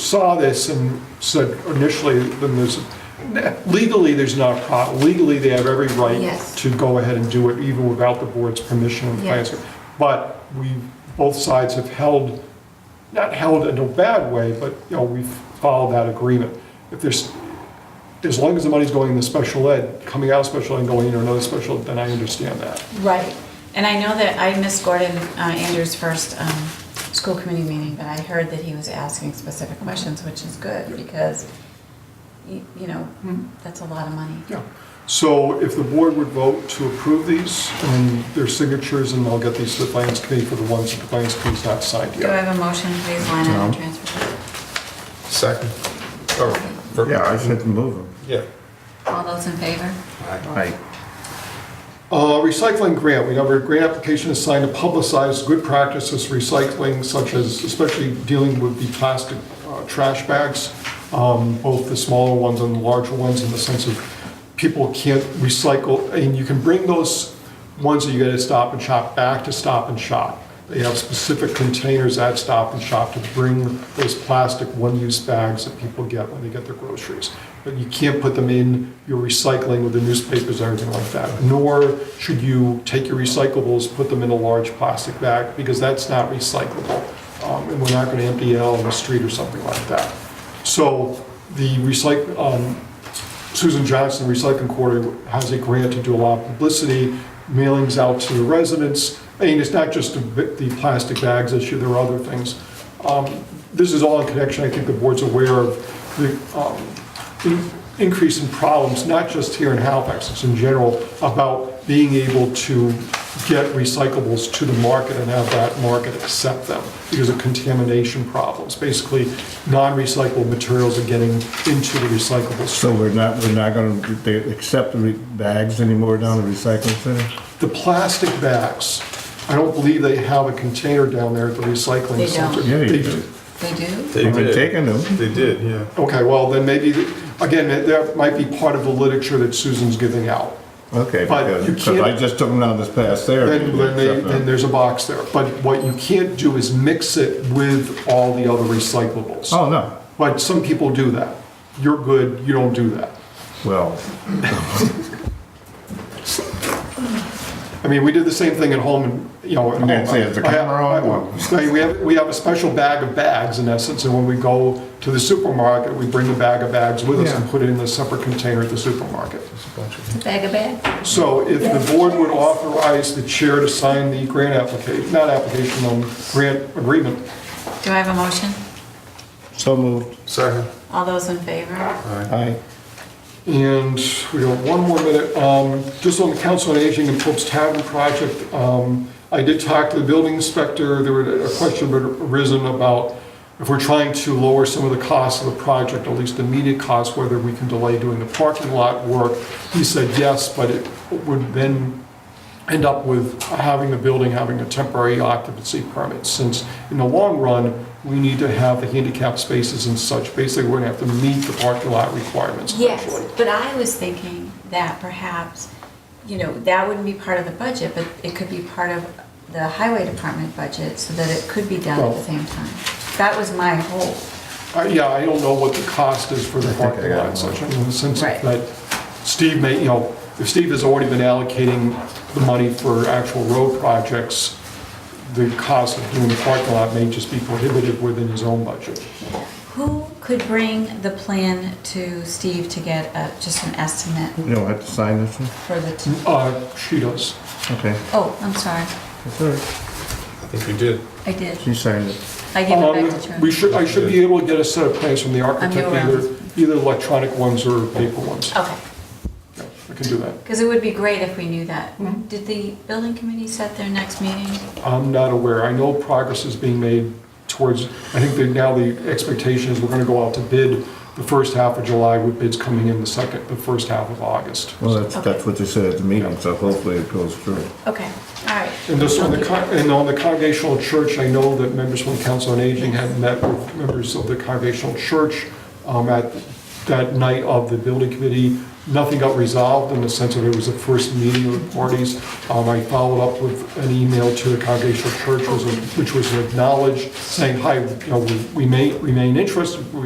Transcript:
saw this and said initially, then there's, legally, there's not a problem. Legally, they have every right Yes. to go ahead and do it even without the board's permission and Yeah. plans. But we, both sides have held, not held in a bad way, but, you know, we've followed that agreement. If there's, as long as the money's going into special ed, coming out of special ed and going into another special, ed, then I understand that. Right. And I know that I missed Gordon uh, Andrews' first um, school committee meeting, but I heard that he was asking specific questions, which is good because, y- you know, that's a lot of money. Yeah. So if the board would vote to approve these and their signatures, and I'll get these to the finance committee for the ones that the finance committee's not signed Do I yet. have a motion, please, line item No. transfer? Second. Yeah, I should move them. Yeah. All those in favor? Aye. Uh, Recycling grant, we know a grant application is signed to publicize good practices recycling, such as especially dealing with the plastic uh, trash bags, um, both the smaller ones and the larger ones, in the sense of people can't recycle, and you can bring those ones that you get at Stop and Shop back to Stop and Shop. They have specific containers at Stop and Shop to bring those plastic one-use bags that people get when they get their groceries. But you can't put them in your recycling with the newspapers or anything like that. Nor should you take your recyclables, put them in a large plastic bag, because that's not recyclable. Um, And we're not going to empty it out on the street or something like that. So the recycle, um, Susan Johnson Recycling Quarter has a grant to do a lot of publicity, mailings out to the residents. I mean, it's not just the the plastic bags issue, there are other things. Um, This is all in connection, I think the board's aware of the um, in- increase in problems, not just here in Halifax, it's in general, about being able to get recyclables to the market and have that market accept them because of contamination problems. Basically, non-recyclable materials are getting into the recyclable stream. So we're not, we're not gonna, they accept the re- bags anymore down the recycling center? The plastic bags, I don't believe they have a container down there at the recycling They center. don't. Yeah, you do. They do? They I've been taking them. They did, yeah. Okay, well, then maybe, again, that- that might be part of the literature that Susan's giving out. Okay, But because, you because I can't- just took them down this past there. Then, then they, uh, then there's a box there. But what you can't do is mix it with all the other recyclables. Oh, no, But some people do that. You're good, you don't do that. well, I mean, we did the same thing at home, and, you know. at I didn't home. say it's a camera I- I- on. I mean, We have, we have a special bag of bags in essence, and when we go to the supermarket, we bring the bag of bags with us and Yeah. put it in a separate container at the supermarket. Bag of bags? So if the board would authorize the chair to sign the grant application, not application, um, grant agreement, Do I have a motion? so moved. Second. All those in favor? Aye. And we got one more minute. Um, Just on the Council on Aging and Pope's Tavern project, um, I did talk to the building inspector. There was a question had arisen about if we're trying to lower some of the costs of the project, at least the immediate costs, whether we can delay doing the parking lot work. He said yes, but it would then end up with having the building having a temporary occupancy permit, since in the long run, we need to have the handicap spaces and such. Basically, we're gonna have to meet the parking lot requirements eventually. Yes, but I was thinking that perhaps, you know, that wouldn't be part of the budget, but it could be part of the highway department budget so that it could be done at the Well- same time. That was my whole, Uh, Yeah, I don't know what the cost is for the I parking got lot it. section, in the sense Right. that Steve may, you know, if Steve has already been allocating the money for actual road projects, the cost of doing the parking lot may just be prohibitive within his own budget. who could bring the plan to Steve to get a- just an estimate You don't have to sign this one? for the, t- Mm-hmm. Uh, She does. Okay. oh, I'm sorry, That's all right. I think we did. I did. She signed it. I give it back Um, to We Charlie. should, I should be able to get a set of plans from the architect, around. either, either electronic ones or paper ones. Okay, Yeah, I can do that. because it would be great if we knew that. Mm-hmm. Did the building committee set their next meeting? I'm not aware. I know progress is being made towards, I think that now the expectation is we're gonna go out to bid the first half of July with bids coming in the second, the first half of August. Well, that's, Okay. that's what they said at the meeting, so hopefully it goes through. Okay, all right. And this, on the, con- and on the Congregational Church, I know that members from the Council on Aging had met with members of the Congregational Church um, at that night of the building committee. Nothing got resolved in the sense that it was the first meeting of the parties. Um, I followed up with an email to the Congregational Church, was- which was acknowledged, saying, hi, you know, we- we may remain interested,